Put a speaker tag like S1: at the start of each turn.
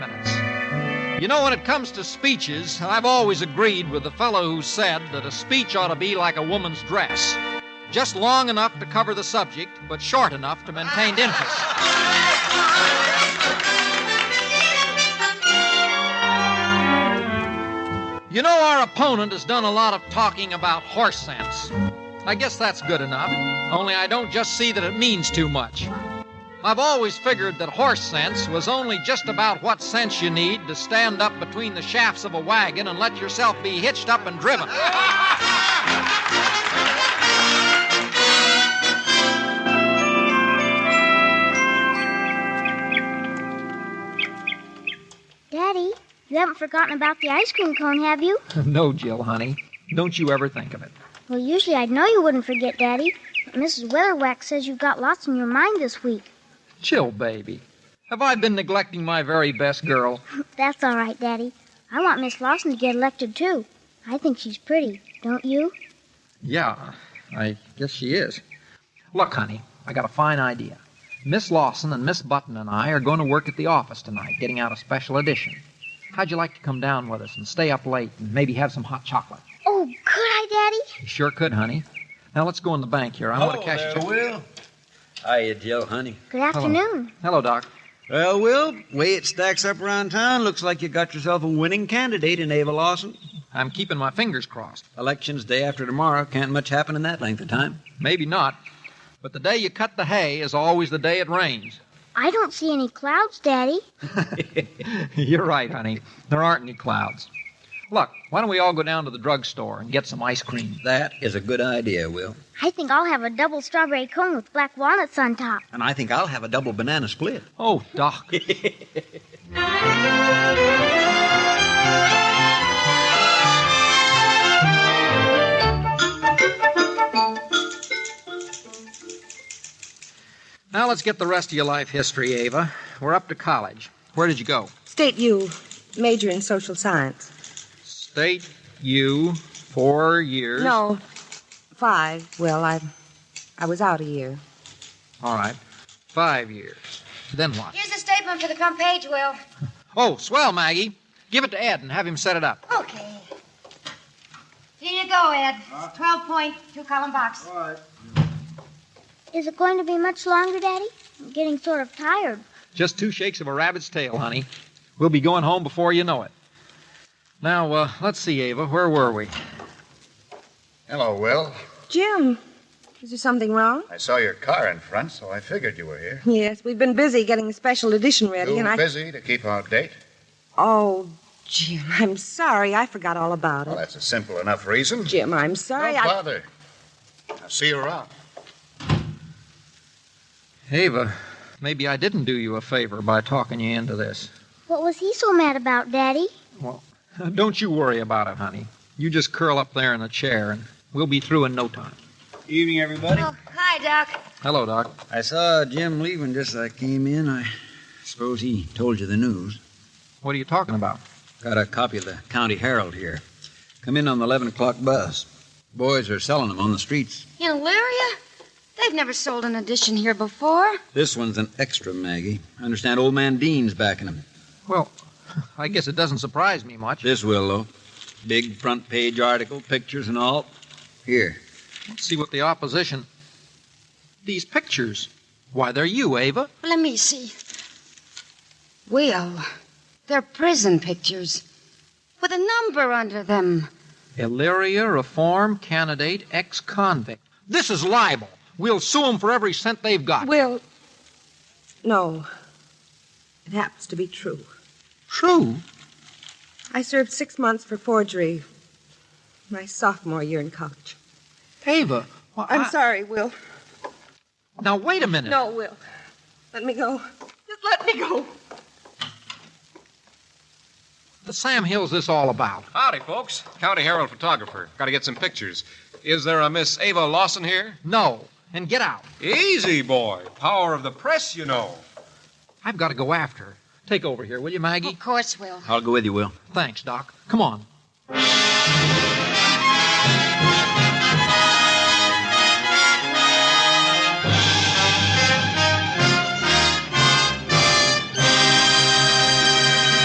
S1: You know, when it comes to speeches, I've always agreed with the fellow who said that a speech ought to be like a woman's dress just long enough to cover the subject, but short enough to maintain interest. You know, our opponent has done a lot of talking about horse sense. I guess that's good enough, only I don't just see that it means too much. I've always figured that horse sense was only just about what sense you need to stand up between the shafts of a wagon and let yourself be hitched up and driven.
S2: Daddy, you haven't forgotten about the ice cream cone, have you?
S1: no, Jill, honey. Don't you ever think of it.
S2: Well, usually I'd know you wouldn't forget, Daddy, but Mrs. Weatherwax says you've got lots on your mind this week.
S1: Jill, baby. Have I been neglecting my very best girl?
S2: That's all right, Daddy. I want Miss Lawson to get elected, too. I think she's pretty, don't you?
S1: Yeah, I guess she is. Look, honey, I got a fine idea. Miss Lawson and Miss Button and I are going to work at the office tonight, getting out a special edition. How'd you like to come down with us and stay up late and maybe have some hot chocolate?
S2: Oh, could I, Daddy?
S1: You sure could, honey. Now let's go in the bank here. I want to cash
S3: there,
S1: a check.
S3: Will. Hiya, Jill, honey.
S2: Good afternoon.
S1: Hello, Doc.
S3: Well, Will, way it stacks up around town, looks like you got yourself a winning candidate in Ava Lawson.
S1: I'm keeping my fingers crossed.
S3: Election's day after tomorrow. Can't much happen in that length of time.
S1: Maybe not. But the day you cut the hay is always the day it rains.
S2: I don't see any clouds, Daddy.
S1: You're right, honey. There aren't any clouds. Look, why don't we all go down to the drugstore and get some ice cream?
S3: That is a good idea, Will.
S2: I think I'll have a double strawberry cone with black walnuts on top.
S3: And I think I'll have a double banana split.
S1: Oh, Doc. now let's get the rest of your life history, Ava. We're up to college. Where did you go?
S4: State U, major in social science.
S1: State U, four years.
S4: No, five. Well, I, I was out a year.
S1: All right. Five years. Then what?
S5: Here's the statement for the front page, Will.
S1: Oh, swell, Maggie. Give it to Ed and have him set it up.
S5: Okay. Here you go, Ed. It's 12 point, two column box.
S2: Is it going to be much longer, Daddy? I'm getting sort of tired.
S1: Just two shakes of a rabbit's tail, honey. We'll be going home before you know it. Now, uh, let's see, Ava. Where were we?
S6: Hello, Will.
S4: Jim, is there something wrong?
S6: I saw your car in front, so I figured you were here.
S4: Yes, we've been busy getting the special edition ready,
S6: Too
S4: and Uh, I.
S6: busy to keep out date?
S4: Oh, Jim, I'm sorry. I forgot all about
S6: Well,
S4: it.
S6: that's a simple enough reason.
S4: Jim, I'm sorry.
S6: Don't
S4: I.
S6: bother. I'll see you around.
S1: Ava, maybe I didn't do you a favor by talking you into this.
S2: What was he so mad about, Daddy?
S1: Don't you worry about it, honey. You just curl up there in the chair, and we'll be through in no time.
S3: Evening, everybody.
S5: Oh, hi, Doc.
S1: Hello, Doc.
S3: I saw Jim leaving just as I came in. I suppose he told you the news.
S1: What are you talking about?
S3: Got a copy of the County Herald here. Come in on the 11 o'clock bus. Boys are selling them on the streets.
S5: In Illyria? They've never sold an edition here before.
S3: This one's an extra, Maggie. I understand old man Dean's backing them.
S1: Well, I guess it doesn't surprise me much.
S3: This will, though. Big front page article, pictures and all. Here.
S1: Let's see what the opposition. These pictures. Why, they're you, Ava.
S5: Let me see. Will, they're prison pictures with a number under them.
S1: Illyria reform candidate ex convict. This is libel. We'll sue them for every cent they've got.
S4: Will. No. It happens to be true.
S1: True.
S4: I served six months for forgery my sophomore year in college.
S1: Ava. why,
S4: I'm
S1: I-
S4: sorry, Will.
S1: Now, wait a minute.
S4: No, Will. Let me go. Just let me go.
S1: The Sam Hill's this all about.
S7: Howdy, folks. County Herald photographer. Got to get some pictures. Is there a Miss Ava Lawson here?
S1: No. And get out.
S7: Easy, boy. Power of the press, you know.
S1: I've got to go after her. Take over here, will you, Maggie?
S5: Of course, Will.
S3: I'll go with you, Will.
S1: Thanks, Doc. Come on.